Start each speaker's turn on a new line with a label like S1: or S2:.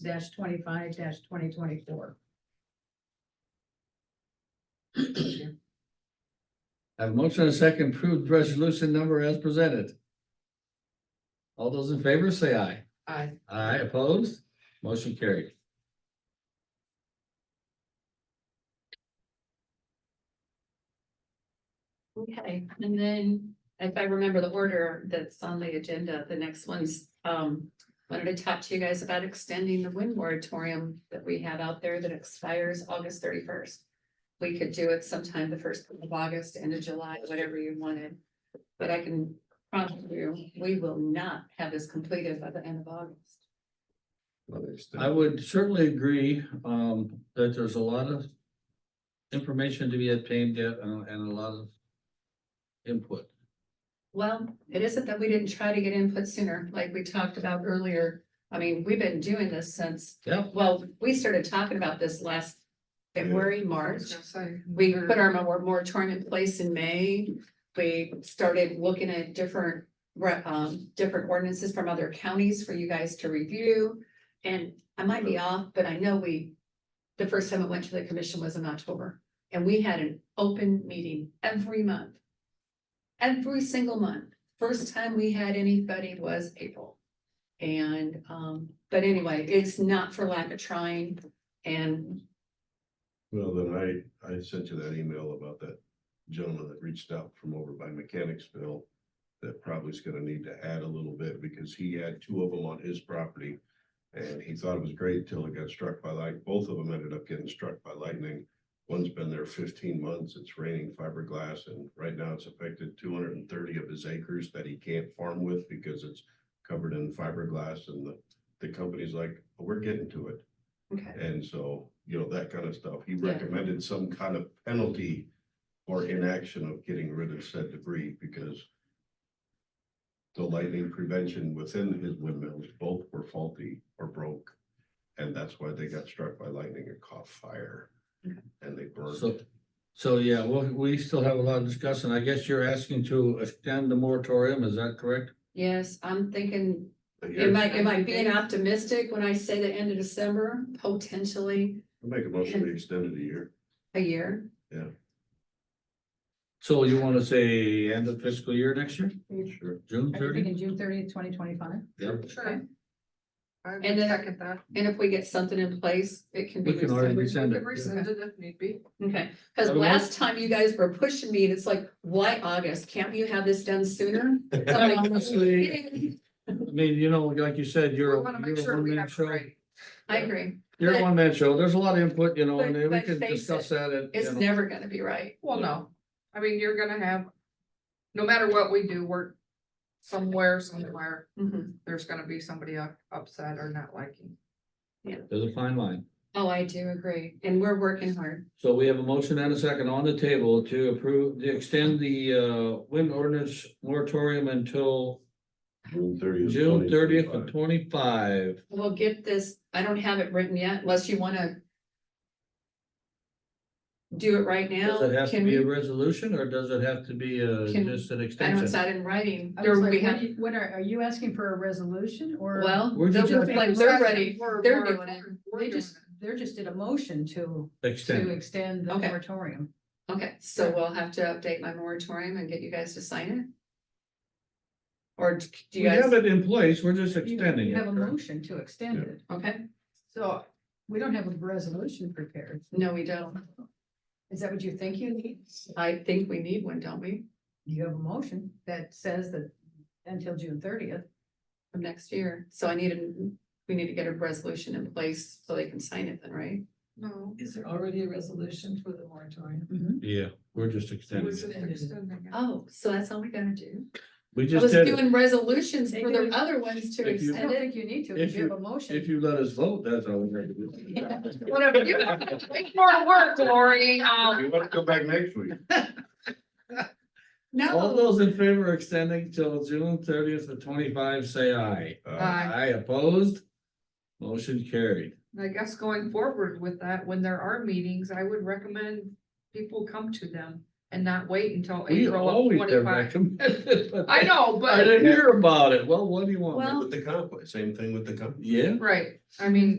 S1: twenty-five twenty twenty-four.
S2: I have a motion and a second to approve resolution number as presented. All those in favor say aye.
S1: Aye.
S2: Aye opposed, motion carried.
S3: Okay, and then if I remember the order that's on the agenda, the next one's, um, wanted to talk to you guys about extending the wind moratorium that we have out there that expires August thirty-first. We could do it sometime the first of August, end of July, whatever you wanted. But I can promise you, we will not have this completed by the end of August.
S2: I would certainly agree um that there's a lot of information to be obtained uh, and a lot of input.
S3: Well, it isn't that we didn't try to get input sooner, like we talked about earlier. I mean, we've been doing this since
S2: Yeah,
S3: Well, we started talking about this last February, March.
S1: So
S3: We put our mor- moratorium in place in May. We started looking at different, re- um, different ordinances from other counties for you guys to review. And I might be off, but I know we, the first time it went to the commission was in October. And we had an open meeting every month. Every single month. First time we had anybody was April. And, um, but anyway, it's not for lack of trying. And
S4: Well, then I, I sent you that email about that gentleman that reached out from over by Mechanicsville. That probably is gonna need to add a little bit because he had two of them on his property. And he thought it was great till it got struck by light. Both of them ended up getting struck by lightning. One's been there fifteen months. It's raining fiberglass and right now it's affected two hundred and thirty of his acres that he can't farm with because it's covered in fiberglass and the, the company's like, we're getting to it.
S3: okay,
S4: And so, you know, that kind of stuff. He
S3: Yeah.
S4: recommended some kind of penalty or inaction of getting rid of said debris because the lightning prevention within his windmills both were faulty or broke. And that's why they got struck by lightning and caught fire
S3: Okay.
S4: and they
S2: so,
S4: burned.
S2: so yeah, well, we still have a lot of discussion. I guess you're asking to extend the moratorium, is that correct?
S3: yes, I'm thinking
S4: But yeah,
S3: Am I, am I being optimistic when I say the end of December, potentially
S4: I Make a motion to extend it a year.
S3: a year?
S2: So you want to say end of fiscal year next year,
S4: Sure.
S1: Are
S2: June
S1: you
S2: thirty?
S1: thinking June thirtieth, twenty twenty-five?
S2: Yep.
S3: Okay.
S5: I would
S3: And then-
S5: second that.
S3: And if we get something in place, it can be.
S2: We can
S3: rescinded.
S2: already
S5: We
S2: rescind
S5: could
S2: it.
S5: rescind it if need be.
S3: Okay, because
S2: Otherwise-
S3: last time you guys were pushing me, and it's like, why August? Can't you have this done sooner? So I'm like,
S2: Honestly. I mean, you know, like you said,
S5: We
S2: you're. a-
S5: wanna make
S2: you're a
S5: sure we
S2: one-man
S5: have it
S2: show.
S5: right.
S3: I agree.
S2: You're a
S3: But-
S2: one-man show. There's a lot of input, you know,
S3: But-
S2: and we
S3: but
S2: can
S3: face
S2: discuss
S3: it,
S2: that at. you
S3: It's
S2: know,
S3: never gonna be right.
S5: Well, no, I mean, you're gonna have, no matter what we do, we're somewhere, somewhere,
S3: Mhm.
S5: there's gonna be somebody up- upset or not liking.
S2: There's a fine line.
S3: Oh, I do agree. And we're working hard.
S2: So we have a motion and a second on the table to approve, to extend the uh wind ordinance moratorium until
S4: June thirtieth.
S2: June thirtieth of twenty-five.
S3: We'll get this, I don't have it written yet unless you wanna do it right now.
S2: Does it have to
S3: Can
S2: be
S3: we-
S2: a resolution or does it have to be uh
S3: Can-
S2: just an
S3: I know it's
S2: extension?
S3: not in writing.
S1: I was
S3: There we
S1: like, what
S3: have,
S1: do you- what are, are you asking for a resolution or?
S3: well,
S2: Where'd you
S3: they'll
S2: get
S3: look
S2: that?
S3: like they're ready.
S5: We're-
S3: They're
S5: we're-
S3: doing it.
S5: we're
S1: They
S5: doing
S1: just, they're just did a motion to, to
S2: Extend.
S1: extend the
S3: Okay.
S1: moratorium.
S3: Okay, so we'll have to update my moratorium and get you guys to sign it? Or d- do
S2: We
S3: you guys,
S2: have it in place. We're just
S1: You-
S2: extending
S1: You
S2: it.
S1: have a
S2: correct?
S1: motion to extend
S4: Yeah.
S1: it.
S3: okay,
S1: So we don't have a resolution prepared.
S3: no, we don't.
S1: Is that what you think you need?
S3: I think we need one, don't we,
S1: You have a motion that says that until June thirtieth.
S3: from next year? So I need a, we need to get a resolution in place so they can sign it then, right?
S5: No.
S6: Is there already a resolution for the moratorium?
S3: Mm-hmm.
S2: Yeah, we're just extending
S5: We're
S2: it.
S5: just extending it.
S3: Oh, so that's all we gotta do?
S2: We
S3: I
S2: just
S3: was
S2: did it.
S3: doing resolutions for the
S1: Maybe-
S3: other ones to
S2: If you-
S1: I don't
S3: extend it.
S1: think you need to,
S2: If
S1: if you have
S2: you-
S1: a motion.
S2: If you let us vote, that's all we're gonna do.
S5: Whatever you, make more work, Lori, um,
S4: You wanna come back next week?
S2: All
S3: No,
S2: those in favor of extending till June thirtieth of twenty-five, say aye.
S4: Uh,
S5: Aye.
S2: Aye opposed. Motion carried.
S5: I guess going forward with that, when there are meetings, I would recommend people come to them. and not wait until
S2: We
S5: April of
S2: always have
S5: twenty-five.
S2: recommended. but
S5: I know,
S2: I
S5: but,
S2: didn't hear about it. Well, what do you want? me to
S3: Well,
S4: With the comp, same thing with the comp.
S2: Yeah.
S5: right, I mean.